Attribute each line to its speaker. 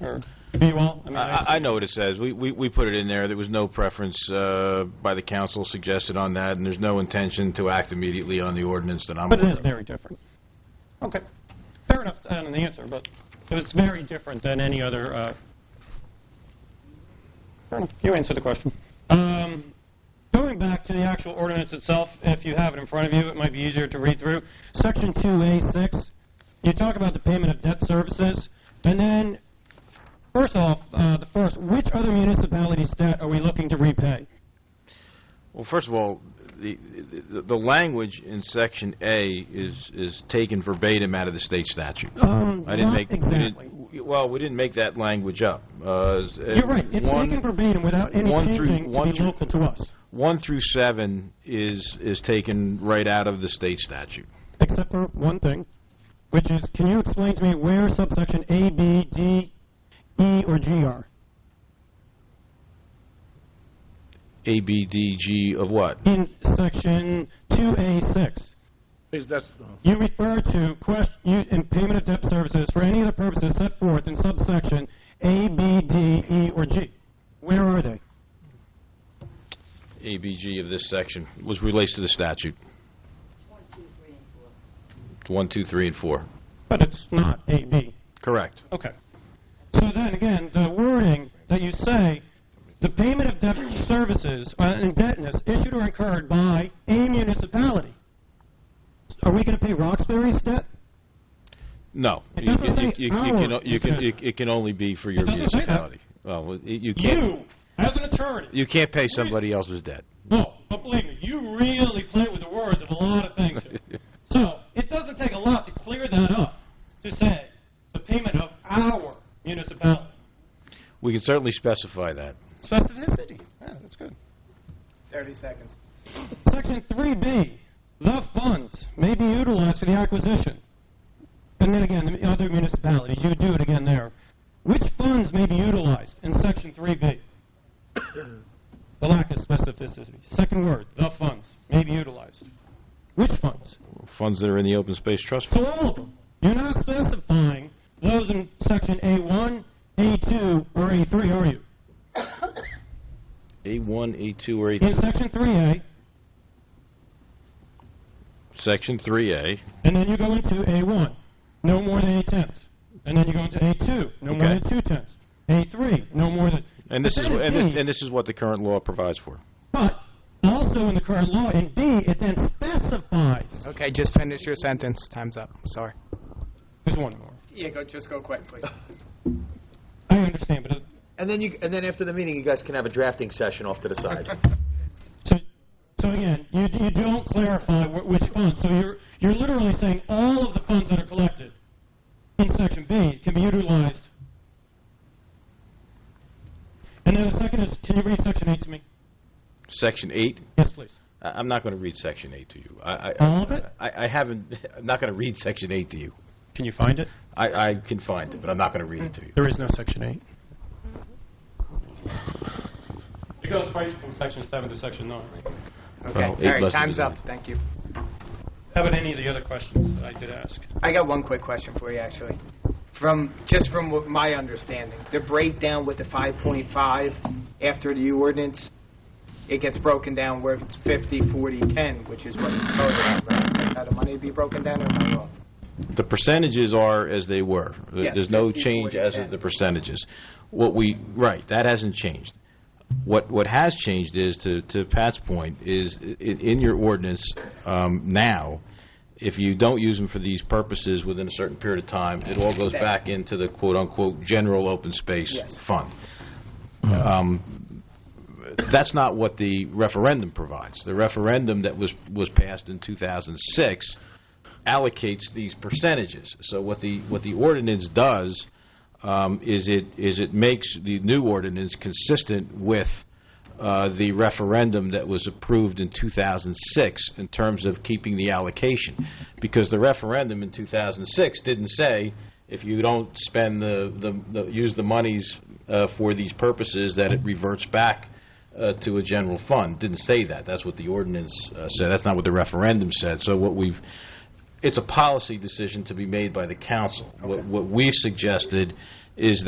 Speaker 1: or?
Speaker 2: Well,
Speaker 1: I mean, I-
Speaker 2: I I know what it says. We we we put it in there. There was no preference uh, by the council suggested on that, and there's no intention to act immediately on the ordinance that I'm
Speaker 1: But it
Speaker 2: aware
Speaker 1: is
Speaker 2: of.
Speaker 1: very different. Okay. Fair enough, I don't know the answer, but but it's very different than any other, uh, fair enough. you answered the question. Um, Going back to the actual ordinance itself, if you have it in front of you, it might be easier to read through. Section 2A6, you talk about the payment of debt services, and then, first off, uh, the first, which other municipalities' debt are we looking to repay?
Speaker 2: Well, first of all, the the the language in Section A is is taken verbatim out of the state statute. I didn't make, we didn't-
Speaker 1: Uh, exactly.
Speaker 2: w- well, we didn't make that language up. Uh, s- uh,
Speaker 1: You're right. It's
Speaker 2: one-
Speaker 1: taken verbatim without any
Speaker 2: one through-
Speaker 1: changing
Speaker 2: one
Speaker 1: to be
Speaker 2: through-
Speaker 1: local to us,
Speaker 2: One through seven is is taken right out of the state statute.
Speaker 1: except for one thing, which is, can you explain to me where subsection A, B, D, E, or G are?
Speaker 2: A, B, D, G of what?
Speaker 1: In section 2A6,
Speaker 3: Is that,
Speaker 1: you refer to question, you, in payment of debt services for any of the purposes set forth in subsection A, B, D, E, or G. Where are they?
Speaker 2: A, B, G of this section was relates to the statute.
Speaker 4: One, two, three, and four.
Speaker 2: It's One, two, three, and four.
Speaker 1: But it's not A, B.
Speaker 2: Correct.
Speaker 1: Okay. So then again, the wording that you say, the payment of debt services or indebtedness issued or incurred by a municipality. Are we going to pay Roxbury's debt?
Speaker 2: No.
Speaker 1: It
Speaker 2: You-
Speaker 1: doesn't
Speaker 2: you-
Speaker 1: say
Speaker 2: you- you
Speaker 1: our
Speaker 2: can o- you can- you-
Speaker 1: municipality.
Speaker 2: It can only be for your
Speaker 1: doesn't say that.
Speaker 2: municipality. Well, it- you can't,
Speaker 1: as an attorney.
Speaker 2: you can't pay somebody else's debt.
Speaker 1: No, but believe me, you really play with the words of a lot of things. here. so it doesn't take a lot to clear that up to say the payment of our municipality.
Speaker 2: We can certainly specify that.
Speaker 1: Specificity.
Speaker 2: Yeah, that's good.
Speaker 5: 30 seconds.
Speaker 1: Section 3B, the funds may be utilized for the acquisition. And then again, the other municipalities, you would do it again there. Which funds may be utilized in Section 3B? The lack of specificity. Second word, the funds may be utilized. Which funds?
Speaker 2: Funds that are in the open space trust fund.
Speaker 1: So all of them. You're not specifying those in Section A1, A2, or A3, are you?
Speaker 2: A1, A2, or
Speaker 1: In
Speaker 2: A,
Speaker 1: Section 3A,
Speaker 2: Section 3A.
Speaker 1: And then you go into A1, no more than 8 tenths. And then you go into A2, no more
Speaker 2: Okay.
Speaker 1: than 2 tenths. A3, no more than.
Speaker 2: And this
Speaker 1: But
Speaker 2: is,
Speaker 1: then
Speaker 2: wh-
Speaker 1: in
Speaker 2: and this,
Speaker 1: B-
Speaker 2: and this is what the current law provides for.
Speaker 1: But also in the current law, in B, it then specifies.
Speaker 5: Okay, just finish your sentence. Time's up. Sorry.
Speaker 1: There's one more.
Speaker 5: Yeah, go. Just go quick, please.
Speaker 1: I understand, but. uh, It,
Speaker 6: And then you, and then after the meeting, you guys can have a drafting session off to the side.
Speaker 1: so, so again, you, you don't clarify wh- which funds. So you're, you're literally saying all of the funds that are collected in Section B can be utilized. And then the second is, can you read Section 8 to me?
Speaker 2: Section 8,
Speaker 1: Yes, please.
Speaker 2: I- I'm not going to read Section 8 to you. I- I-
Speaker 1: All of it?
Speaker 2: I I haven't, I'm not going to read Section 8 to you.
Speaker 1: Can you find it?
Speaker 2: I I can find it, but I'm not going to read it to you.
Speaker 1: There is no Section 8. It goes right from Section 7 to Section 9.
Speaker 5: Okay.
Speaker 2: Well, Oh,
Speaker 5: All
Speaker 2: eight
Speaker 5: right.
Speaker 2: lessons
Speaker 5: Time's
Speaker 2: in
Speaker 5: up.
Speaker 2: it.
Speaker 5: Thank you.
Speaker 1: How about any of the other questions that I did ask?
Speaker 5: I got one quick question for you, actually. From just from what my understanding, the breakdown with the 5.5 after the U ordinance, it gets broken down where it's 50, 40, 10, which is what it's voted on. Right? That's how the money would be broken down. Or am I wrong?
Speaker 2: The percentages are as they were. There-
Speaker 5: Yes,
Speaker 2: There's no
Speaker 5: 50,
Speaker 2: change
Speaker 5: 40,
Speaker 2: as of
Speaker 5: 10.
Speaker 2: the percentages. What we, right, that hasn't changed. What what has changed is, to to Pat's point, is i- in your ordinance um, now, if you don't use them for these purposes within a certain period of time, it all goes
Speaker 5: Stay.
Speaker 2: back into the quote-unquote "general open space
Speaker 5: Yes.
Speaker 2: fund." Um, That's not what the referendum provides. The referendum that was was passed in 2006 allocates these percentages. So what the, what the ordinance does um, is it, is it makes the new ordinance consistent with uh, the referendum that was approved in 2006 in terms of keeping the allocation. Because the referendum in 2006 didn't say, if you don't spend the, the- the, use the monies uh, for these purposes, that it reverts back uh, to a general fund. Didn't say that. That's what the ordinance uh, said. That's not what the referendum said. So what we've, it's a policy decision to be made by the council. What what we suggested is